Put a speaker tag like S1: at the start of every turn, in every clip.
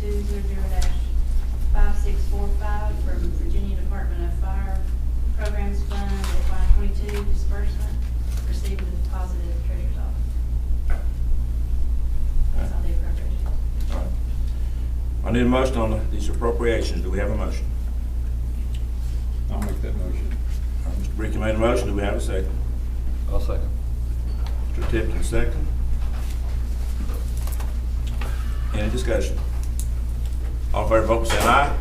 S1: zero zero five six four five from Virginia Department of Fire Programs Fund, FY twenty-two disbursement, received with deposit at the treasurer's office. That's all the appropriations.
S2: All right. I need a motion on the- these appropriations. Do we have a motion?
S3: I'll make that motion.
S2: All right, Mr. Ricky made a motion. Do we have a second?
S4: I'll second.
S2: Mr. Tipton, second. Any discussion? All in favor, vote by saying aye.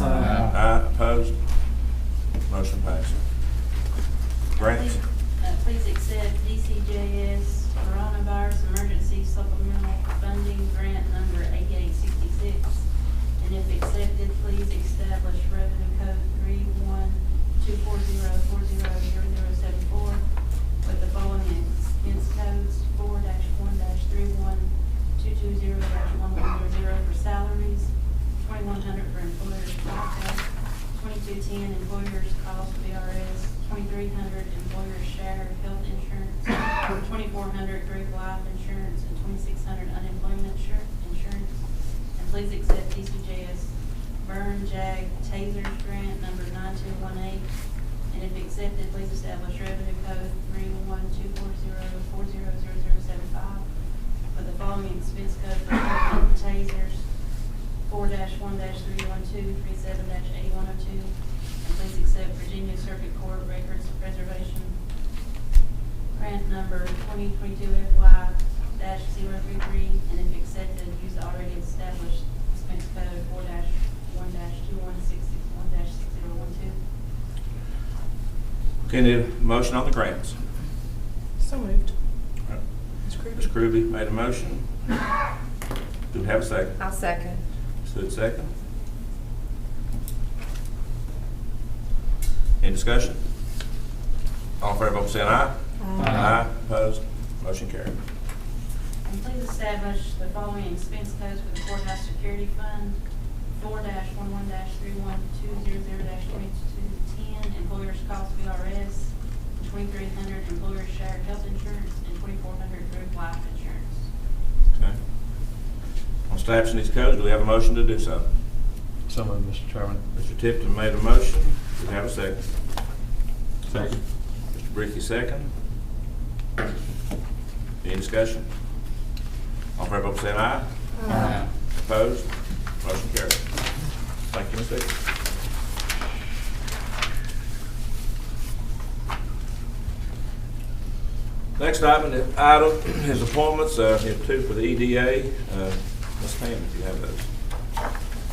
S2: Aye, opposed? Motion passes. Grants?
S1: Please- uh, Please accept DCJS Coronavirus Emergency Supplemental Funding Grant Number 8866. And if accepted, please establish revenue code 31240400074 with the following expense codes, 4-1-31220-1100 for salaries, 2100 for employers' cost, 2210 employers' cost E VRS, 2300 employers' share of health insurance, 2400 group life insurance, and 2600 unemployment insur- insurance. And please accept TCJS burn jag taser grant number 9218. And if accepted, please establish revenue code 31240400075 for the following expense code for equipment, tasers, four one three one two three seven eight one oh two. And please accept Virginia Circuit Court Records Preservation Grant Number twenty twenty-two FY dash zero three three. And if accepted, use the already established expense code four one two one six six one six zero one two.
S2: Okay, need a motion on the grants.
S5: So moved.
S2: All right.
S5: Ms.
S2: Ms.
S5: Krueger?
S2: Ruby made a motion. Do we have a second?
S5: I'll second.
S2: Ms. Hood, second. Any discussion? All in favor, vote by saying aye. Aye, opposed? Motion carried.
S1: And please establish the following expense codes for the courthouse security fund, four one one three one two zero zero twenty-two ten, employer's cost VRS, twenty-three hundred employer's share health insurance, and twenty-four hundred group life insurance.
S2: Okay. On establishing these codes, do we have a motion to do so?
S4: So moved, Mr. Chairman.
S2: Mr. Tipton made a motion. Do we have a second?
S3: Second.
S2: Mr. Bricky, second. Any discussion? All in favor, vote by saying aye.
S5: Uh,
S2: Opposed? Motion carried. Thank you, Ms. Dixon. Next item, item is appointments. Uh, Here are two for the EDA. Uh, Ms. Hammond, if you have those.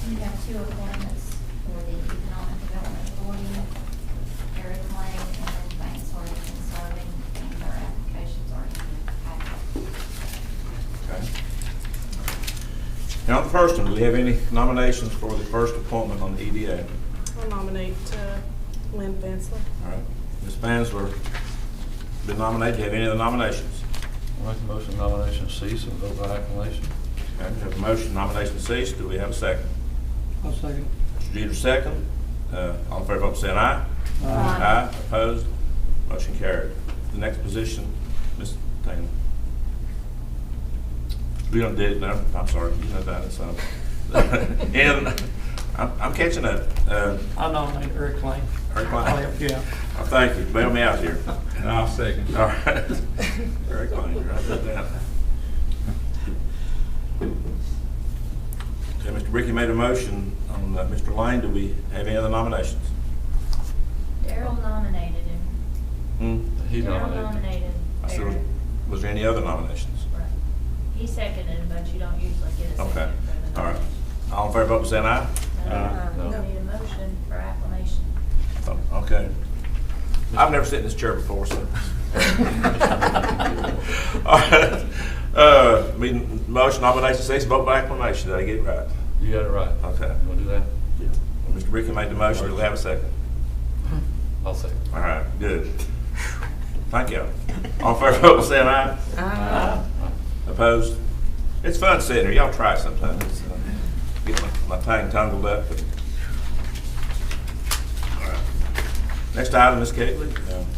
S6: We have two appointments for the Economic Development Authority, Eric Lang and Banks Origin Serving, and their applications are in the packet.
S2: Okay. Now, the first one, do we have any nominations for the first appointment on the E EDA?
S5: I'll nominate uh, Lynn Bensler.
S2: All right. Ms. Mansler, been nominated. Do you have any other nominations?
S4: I make a motion nomination cease and vote by acclamation.
S2: Okay, we have a motion, nomination ceased. Do we have a second?
S3: I'll second.
S2: Mr. Jeter, second. Uh, All in favor, vote by saying aye.
S7: Uh,
S6: Aye.
S2: opposed, motion carried. The next position, Ms. Taylor. We don't did, no, I'm sorry, you know that, so. And I'm I'm catching up. Uh,
S7: I nominate Eric Lane.
S2: Eric Klein.
S7: I'll help you out.
S2: Oh, Thank you, bail me out here.
S3: And I'll second.
S2: All right. Eric Klein, write that down. Okay, Mr. Ricky made a motion on uh, Mr. Lane. Do we have any other nominations?
S6: Daryl nominated him.
S2: Hmm?
S4: He
S6: Daryl
S4: nominated.
S6: nominated
S2: I said,
S6: Eric.
S2: Was there any other nominations?
S6: Right. He seconded, but you don't usually get a second.
S2: Okay,
S6: for the
S2: all right. Uh,
S6: nomination.
S2: All in favor, vote by saying aye.
S4: Aye.
S6: No,
S4: No.
S6: no, we need a motion for acclamation.
S2: Oh, Okay. I've never sat in this chair before, so. All right. Uh, meeting- Motion, nomination, six, vote by acclamation. Did I get it right?
S4: You got it right.
S2: Okay.
S4: You want to do that? Yeah.
S2: Mr. Ricky made the motion. Do we have a second?
S4: I'll second.
S2: All right, good. Thank you. All in favor, vote by saying aye.
S4: Aye.
S2: Opposed? It's fun sitting here. Y'all try it sometime. It's, uh, Get my my tongue tangled up. but- All right. Next item, Ms. Kegley.